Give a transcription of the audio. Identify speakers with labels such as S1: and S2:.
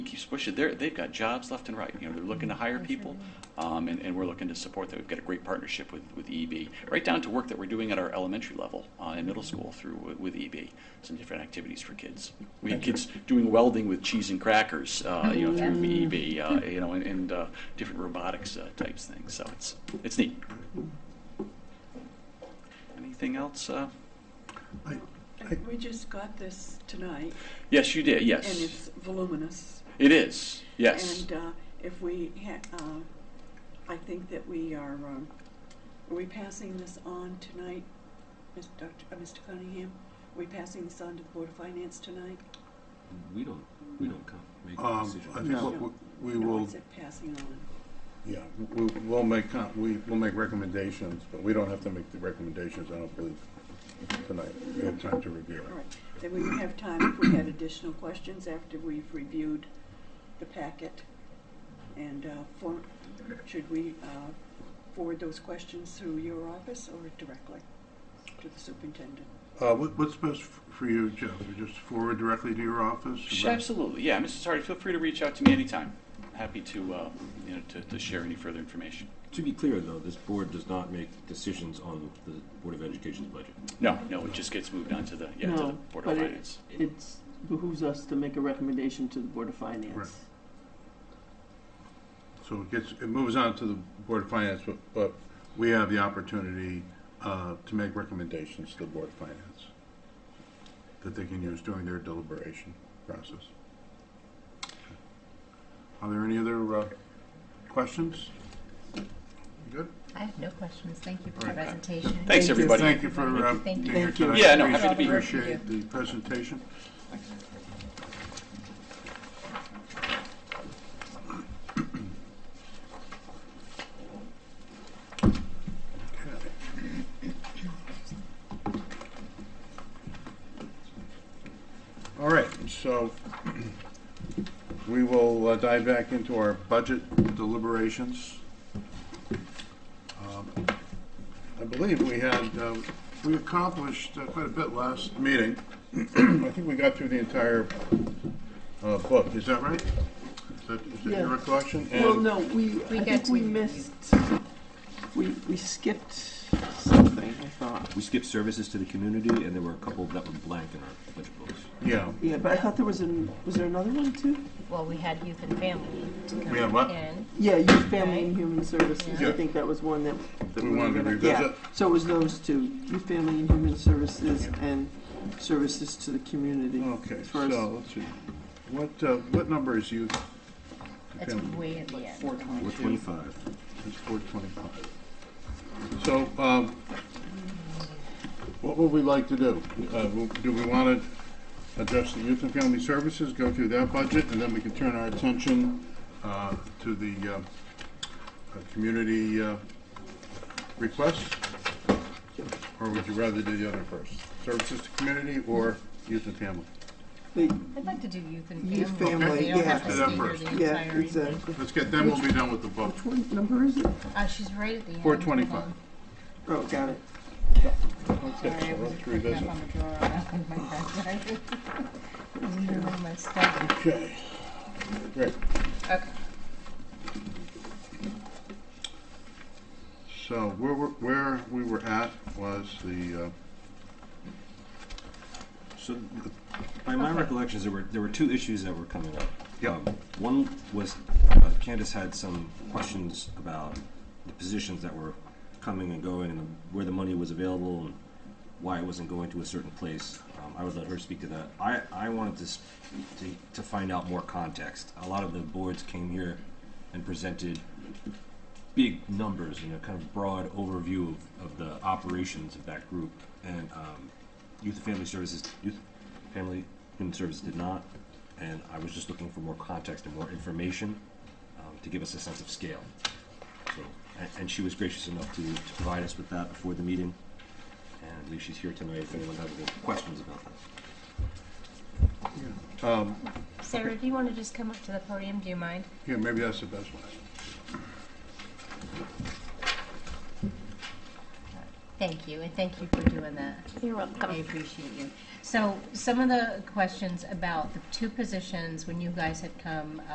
S1: keeps pushing. They're, they've got jobs left and right. You know, they're looking to hire people, um, and, and we're looking to support that. We've got a great partnership with, with EEB, right down to work that we're doing at our elementary level uh, and middle school through with- with EEB, some different activities for kids. We had kids doing welding with cheese and crackers,
S2: Oh,
S1: uh, you know, through EEB, uh, you know, and, and uh, different robotics uh, types things. So it's it's neat. Anything else? Uh,
S3: I, um, I,
S2: And We just got this tonight,
S1: yes, you did.
S2: and
S1: Yes,
S2: it's voluminous.
S1: it is. Yes.
S2: And uh, if we, ha- uh, I think that we are, um, are we passing this on tonight, Ms. Dr., uh, Mr. Cunningham? Are we passing this on to the Board of Finance tonight?
S4: We don't, we don't come, make a
S3: um, I think
S4: decision.
S3: what we we
S2: No,
S3: will,
S2: it's a passing on.
S3: yeah, we, we'll make, com- we, we'll make recommendations, but we don't have to make the recommendations, I don't believe, tonight. We have time to review
S2: All
S3: it.
S2: right, then we would have time if we had additional questions after we've reviewed the packet. And uh, for, should we uh, forward those questions through your office or directly to the superintendent?
S3: Uh, what, what's best f- for you, Jeff? You Just forward directly to your office?
S1: Sh- Absolutely, yeah, Mrs. Hardy, feel free to reach out to me anytime. Happy to, uh, you know, to, to share any further information.
S4: To be clear, though, this board does not make decisions on the Board of Education's budget.
S1: No, no, it just gets moved on to the, yeah, to the
S5: No,
S1: Board of
S5: but it-
S1: Finance.
S5: It's behooves us to make a recommendation to the Board of
S3: Right.
S5: Finance.
S3: So it gets, it moves on to the Board of Finance, but, but we have the opportunity, uh, to make recommendations to the Board of Finance that they can use during their deliberation process. Are there any other, uh, questions? You Good?
S6: I have no questions. Thank you for the
S3: Right.
S6: presentation.
S1: Thanks, everybody.
S3: Thank you for, uh,
S6: Thank
S3: being
S6: you.
S3: here
S5: Thank you.
S3: tonight.
S1: Yeah, no,
S3: We
S1: happy to be here.
S3: Appreciate the presentation. All right, so we will uh, dive back into our budget deliberations. Um, I believe we had, uh, we accomplished uh, quite a bit last meeting. I think we got through the entire uh, book, is that right? Is that is that your
S5: Yeah.
S3: recollection?
S5: Well,
S3: And-
S5: no, we, I
S6: got
S5: think
S6: to
S5: we
S6: the-
S5: missed, we, we skipped something, I thought.
S4: We skipped services to the community, and there were a couple that were blank in our budget books.
S3: Yeah,
S5: Yeah, but I thought there was an, was there another one too?
S6: Well, we had youth and family to come
S3: We had what?
S6: in.
S5: Yeah, Youth, Family, and
S6: Right.
S5: Human Services. I
S3: Yeah.
S5: think that was one that. that
S3: We
S5: were
S3: wanted to
S5: gonna-
S3: revisit.
S5: yeah. So it was those two, Youth, Family, and Human Services, and Services to the Community.
S3: okay,
S5: as far as-
S3: so, let's see. What, uh, what number is youth?
S6: That's way at the end.
S4: Four twenty-five.
S3: It's four twenty-five. So, um, what would we like to do? Uh, w- do we want to address the youth and family services, go through that budget, and then we can turn our attention, uh, to the, uh, uh, community, uh, requests? Or would you rather do the other first? Services to community or youth and family?
S5: They-
S6: I'd like to do youth and family.
S5: Youth family,
S6: They don't
S5: yeah.
S6: have to stay here
S3: Let's do
S6: the
S3: that
S5: Yeah,
S6: entire evening.
S5: exactly.
S3: Let's get, then we'll be done with the book.
S5: Which one, number is it?
S6: Uh, she's right at the end.
S3: Four twenty-five.
S5: Oh, got it.
S3: Okay,
S6: Sorry, I
S3: so
S6: was
S3: let's
S6: picking
S3: revisit.
S6: up on the drawer. I had my back. It was literally my stomach.
S3: Okay, great.
S6: Okay.
S3: So where, we're- where we were at was the, uh,
S4: So, th- by my recollections, there were, there were two issues that were coming up.
S3: Yep.
S4: Um, One was uh, Candace had some questions about the positions that were coming and going and the- where the money was available and why it wasn't going to a certain place. Um, I would let her speak to that. I, I wanted to, sp- to, to find out more context. A lot of the boards came here and presented big numbers and a kind of broad overview of, of the operations of that group. And um, Youth and Family Services, Youth Family Human Services did not. And I was just looking for more context and more information um, to give us a sense of scale. So, and, and she was gracious enough to, to provide us with that before the meeting. And I believe she's here tonight if anyone has any questions about that.
S3: um,
S6: Sarah, do you want to just come up to the podium? Do you mind?
S3: here, maybe that's the best one.
S6: Thank you, and thank you for doing that.
S7: You're
S6: I
S7: welcome.
S6: appreciate you. So some of the questions about the two positions, when you guys had come